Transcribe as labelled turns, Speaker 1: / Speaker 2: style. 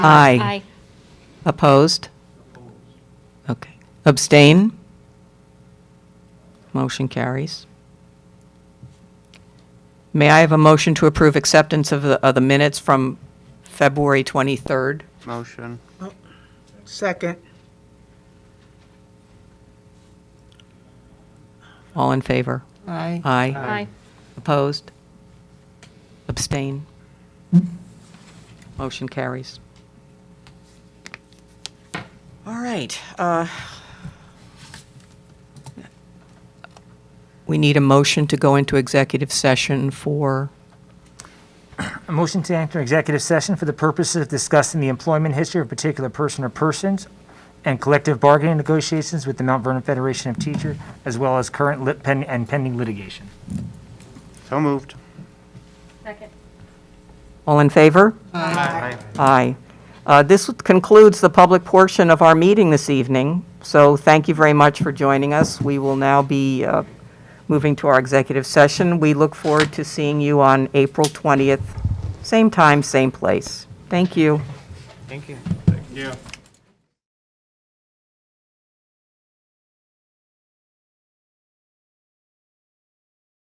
Speaker 1: Aye. Opposed? Okay. Abstain? Motion carries. May I have a motion to approve acceptance of the, of the minutes from February 23rd?
Speaker 2: Motion.
Speaker 3: Second.
Speaker 1: All in favor?
Speaker 3: Aye.
Speaker 1: Aye.
Speaker 2: Aye.
Speaker 4: Aye.
Speaker 1: Opposed? Abstain? Motion carries. All right. uh, We need a motion to go into executive session for,
Speaker 4: A motion to enter executive session for the purposes of discussing the employment history of a particular person or persons and collective bargaining negotiations with the Mount Vernon Federation of Teachers, as well as current lit- pen- and pending litigation.
Speaker 2: So moved.
Speaker 1: all in favor?
Speaker 2: Aye.
Speaker 1: Aye. Uh, This concludes the public portion of our meeting this evening, so thank you very much for joining us. We will now be uh, moving to our executive session. We look forward to seeing you on April 20th, same time, same place. Thank you.
Speaker 2: Thank you.